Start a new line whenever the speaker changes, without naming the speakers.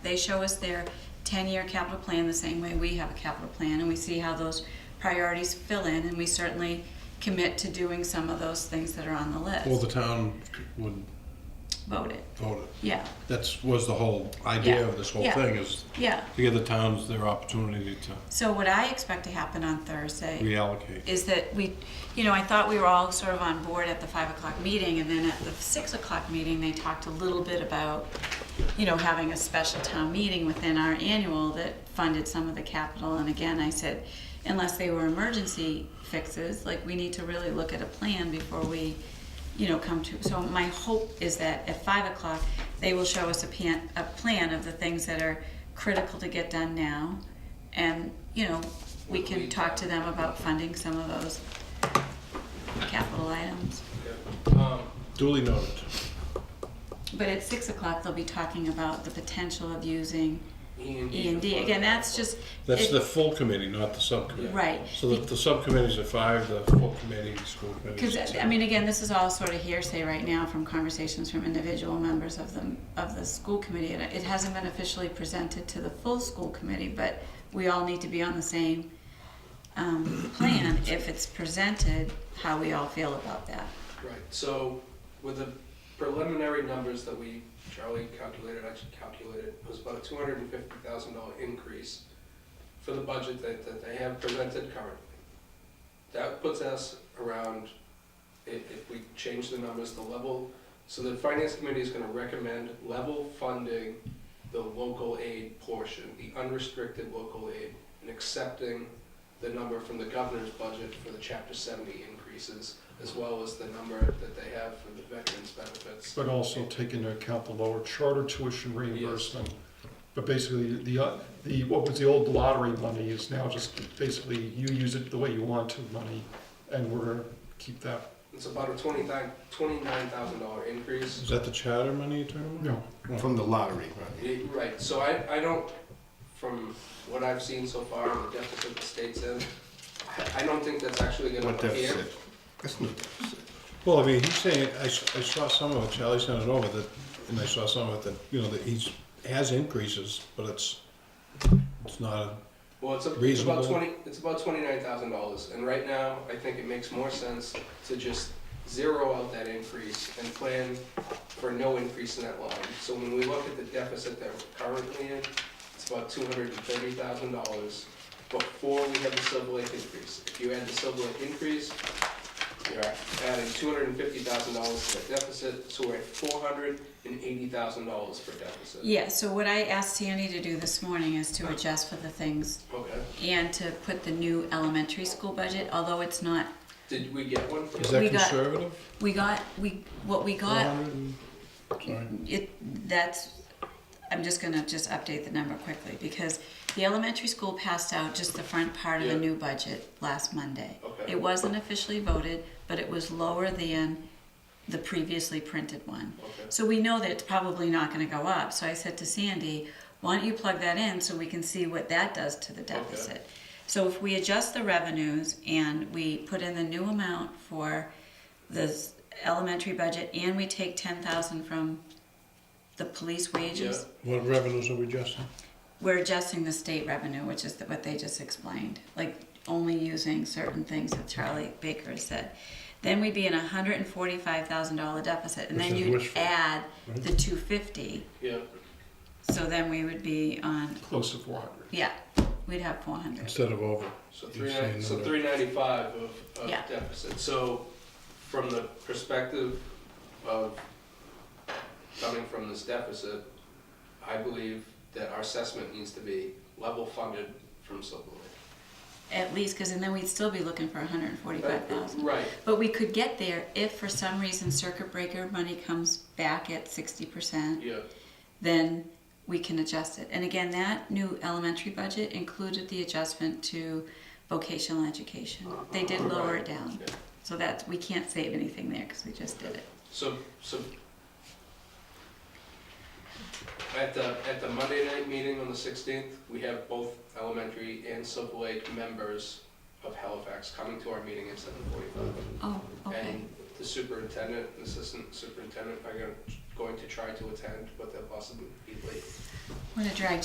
they show us their ten-year capital plan the same way we have a capital plan, and we see how those priorities fill in, and we certainly commit to doing some of those things that are on the
Well,
list.
the town would
Vote it,
vote it.
yeah,
That's, was the whole idea
Yeah.
of this whole
Yeah.
thing, is
yeah.
to give the towns their opportunity to
So what I expect to happen on Thursday
reallocate.
is that we, you know, I thought we were all sort of on board at the five o'clock meeting, and then at the six o'clock meeting, they talked a little bit about, you know, having a special town meeting within our annual that funded some of the capital, and again, I said, unless they were emergency fixes, like, we need to really look at a plan before we, you know, come to, so my hope is that at five o'clock, they will show us a plan, a plan of the things that are critical to get done now, and, you know, we can talk to them about funding some of those capital items.
Duly noted.
But at six o'clock, they'll be talking about the potential of using
E and
E and D. Again, that's just.
That's
it-
the full committee, not the subcommittee.
Right.
So the, the subcommittees are five, the full committee, the school committee.
Because, I mean, again, this is all sort of hearsay right now from conversations from individual members of the, of the school committee. And it hasn't been officially presented to the full school committee, but we all need to be on the same, um, plan if it's presented, how we all feel about that.
Right, so with the preliminary numbers that we, Charlie calculated, actually calculated, it was about a two hundred and fifty thousand dollar increase for the budget that, that they have presented currently. That puts us around, if, if we change the numbers, the level, so the finance committee is gonna recommend level funding the local aid portion, the unrestricted local aid, and accepting the number from the governor's budget for the chapter seventy increases, as well as the number that they have for the veterans benefits.
But also take into account the lower charter tuition reimbursement. But basically, the, uh, the, what was the old lottery money is now just basically you use it the way you want to money, and we're gonna keep that,
It's about a twenty-nine, twenty-nine thousand dollar increase.
Is that the charter money you're talking about?
you know,
From the lottery.
It- Right, so I, I don't, from what I've seen so far, the deficit the state's in, I- I don't think that's actually gonna
What
appear.
deficit? That's no deficit.
Well, I mean, he's saying, I, s- I saw some of it, Charlie sent it over, that, and I saw some of it, that, you know, that he's, has increases, but it's, it's not a
Well, it's, a, it's
Reasonable.
about twenty. It's about twenty-nine thousand dollars, and right now, I think it makes more sense to just zero out that increase and plan for no increase in that line. So when we look at the deficit that we're currently in, it's about two hundred and thirty thousand dollars before we have the Silver Lake increase. If you add the Silver Lake increase, you're adding two hundred and fifty thousand dollars to that deficit, so we're at four hundred and eighty thousand dollars for deficit.
Yeah, so what I asked Sandy to do this morning is to adjust for the things
Okay,
and to put the new elementary school budget, although it's not,
did we get one?
Is
We
that
got-
conservative?
we got, we, what we got
400 and- Sorry.
It, that's, I'm just gonna just update the number quickly, because the elementary school passed out just the front part of the
Yeah.
new budget last Monday.
Okay.
It wasn't officially voted, but it was lower than the previously printed one.
Okay.
So we know that it's probably not gonna go up, so I said to Sandy, why don't you plug that in so we can see what that does to the deficit? So if we adjust the revenues and we put in the new amount for the s- elementary budget and we take ten thousand from the police wages,
What revenues are we adjusting?
we're adjusting the state revenue, which is what they just explained, like only using certain things that Charlie Baker said. Then we'd be in a hundred and forty-five thousand dollar deficit, and
Which
then
is
you'd
wishful, Mm-hmm.
add
right?
the two fifty,
Yeah.
so then we would be on,
close to four hundred.
yeah, we'd have four hundred.
Instead of over.
So
You're
three,
saying
so
that-
three ninety-five of, of
Yeah.
deficit, so from the perspective of coming from this deficit, I believe that our assessment needs to be level funded from Silver Lake.
At least, cause and then we'd still be looking for a hundred and forty-five thousand.
Right,
But we could get there if for some reason circuit breaker money comes back at sixty percent.
yeah,
then we can adjust it. And again, that new elementary budget included the adjustment to vocational education. They did lower it down.
yeah.
So that, we can't save anything there because we just did it.
So, so at the, at the Monday night meeting on the sixteenth, we have both elementary and Silver Lake members of Halifax coming to our meeting at seven forty-five.
Oh, okay.
And the superintendent, and assistant superintendent are gonna going to try to attend, but they'll possibly be late.
I'm gonna drag